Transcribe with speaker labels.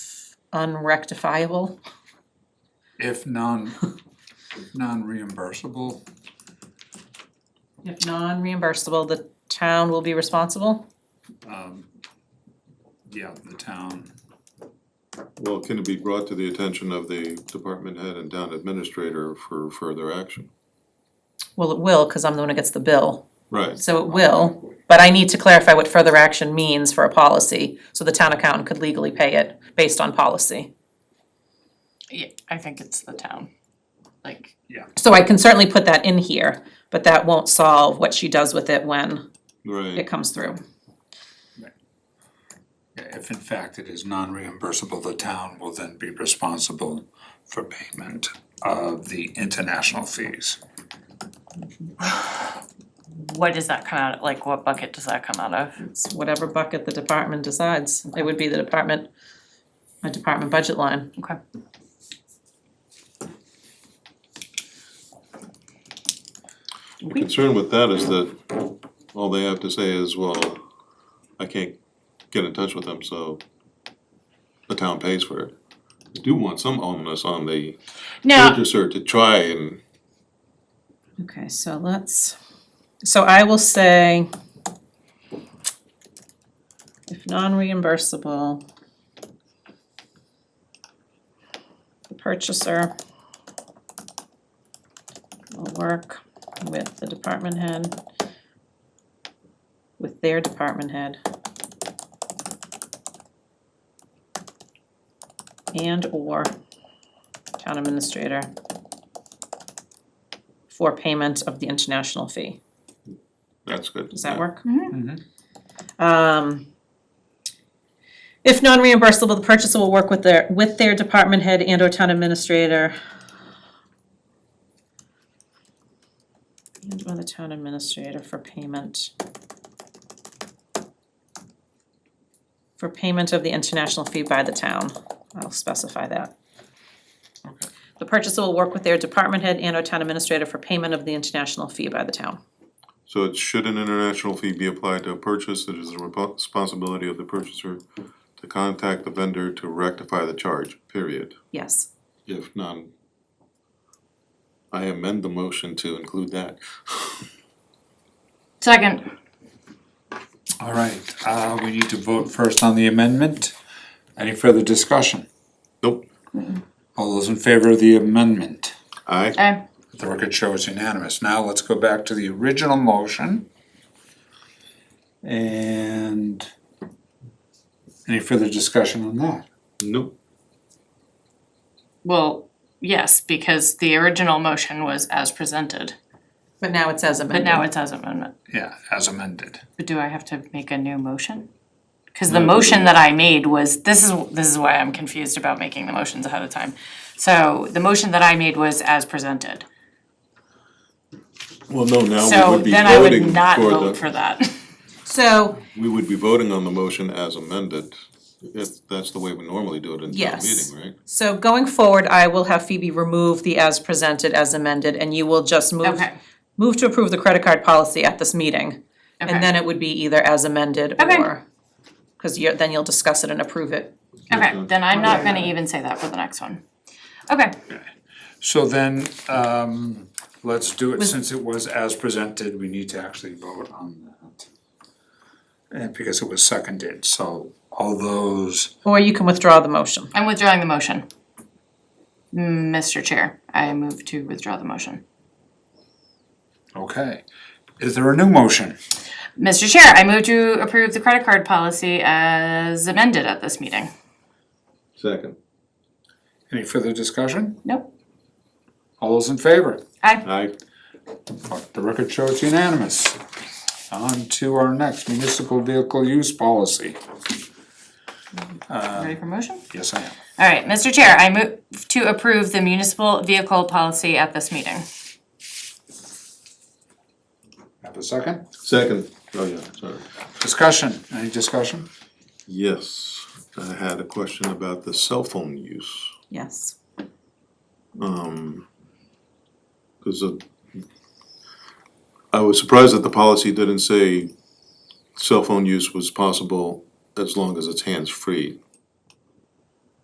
Speaker 1: unrectifiable?
Speaker 2: if non, if non-reimbursable,
Speaker 1: If non-reimbursable, the town will be responsible?
Speaker 2: um, yeah, the town,
Speaker 3: Well, can it be brought to the attention of the department head and town administrator for further action?
Speaker 1: Well, it will, cause I'm the one who gets the bill,
Speaker 3: Right,
Speaker 1: so it will, but I need to clarify what further action means for a policy, so the town accountant could legally pay it based on policy.
Speaker 4: Yeah, I think it's the town, like,
Speaker 1: So I can certainly put that in here, but that won't solve what she does with it when it
Speaker 3: right.
Speaker 1: comes through.
Speaker 2: if in fact it is non-reimbursable, the town will then be responsible for payment of the international fees.
Speaker 4: what does that come out, of? like, what bucket does that come out of?
Speaker 1: It's whatever bucket the department decides, it would be the department, a department budget line.
Speaker 4: Okay,
Speaker 3: The concern with that is that all they have to say is, well, I can't get in touch with them, so the town pays for it. I do want some onus on the
Speaker 4: now,
Speaker 3: purchaser to try and,
Speaker 1: Okay, so let's, so I will say if non-reimbursable, the purchaser will work with the department head, with their department head. And/or town administrator for payment of the international fee.
Speaker 3: that's good.
Speaker 1: Does that work?
Speaker 2: Mhm.
Speaker 1: Um, if non-reimbursable, the purchaser will work with their, with their department head and or town administrator. And or the town administrator for payment. For payment of the international fee by the town, I'll specify that.
Speaker 2: Okay.
Speaker 1: The purchaser will work with their department head and or town administrator for payment of the international fee by the town.
Speaker 3: So it should an international fee be applied to a purchase, it is the repo- responsibility of the purchaser to contact the vendor to rectify the charge, period.
Speaker 1: Yes.
Speaker 3: If none, I amend the motion to include that.
Speaker 4: second,
Speaker 2: All right, uh, we need to vote first on the amendment. Any further discussion?
Speaker 3: Nope,
Speaker 2: All those in favor of the amendment?
Speaker 3: aye.
Speaker 4: eh,
Speaker 2: The record shows unanimous. Now let's go back to the original motion. And any further discussion on that?
Speaker 3: Nope,
Speaker 4: well, yes, because the original motion was as presented,
Speaker 1: But now it says
Speaker 4: but
Speaker 1: amended.
Speaker 4: now it's as amendment.
Speaker 2: Yeah, as amended.
Speaker 4: But do I have to make a new motion? Cause the motion that I made was, this is, this is why I'm confused about making the motions ahead of time. So the motion that I made was as presented,
Speaker 3: well, no, now we
Speaker 4: so
Speaker 3: would be
Speaker 4: then I would
Speaker 3: voting
Speaker 4: not
Speaker 3: for
Speaker 4: vote for
Speaker 3: the,
Speaker 4: that.
Speaker 1: So,
Speaker 3: we would be voting on the motion as amended. If, that's the way we normally do it in town
Speaker 1: Yes.
Speaker 3: meeting, right?
Speaker 1: so going forward, I will have Phoebe remove the as presented, as amended, and you will just move,
Speaker 4: Okay.
Speaker 1: move to approve the credit card policy at this meeting.
Speaker 4: Okay.
Speaker 1: And then it would be either as amended
Speaker 4: Okay.
Speaker 1: or, cause you're, then you'll discuss it and approve it.
Speaker 4: Okay, then I'm not gonna even say that for the next one. Okay,
Speaker 2: So then, um, let's do it, since it was as presented, we need to actually vote on that. And because it was seconded, so all those,
Speaker 1: Or you can withdraw the motion.
Speaker 4: I'm withdrawing the motion. Mr. Chair, I move to withdraw the motion.
Speaker 2: okay. Is there a new motion?
Speaker 4: Mr. Chair, I move to approve the credit card policy as amended at this meeting.
Speaker 3: Second,
Speaker 2: Any further discussion?
Speaker 4: Nope,
Speaker 2: All those in favor?
Speaker 4: aye.
Speaker 3: aye.
Speaker 2: The record shows unanimous. On to our next municipal vehicle use policy.
Speaker 4: Ready for motion?
Speaker 2: Yes, I am.
Speaker 4: All right, Mr. Chair, I move to approve the municipal vehicle policy at this meeting.
Speaker 2: Have a second?
Speaker 3: Second, oh yeah, sorry.
Speaker 2: Discussion, any discussion?
Speaker 3: Yes, I had a question about the cell phone use.
Speaker 1: Yes.
Speaker 3: Um, cause uh, I was surprised that the policy didn't say cell phone use was possible as long as it's hands-free.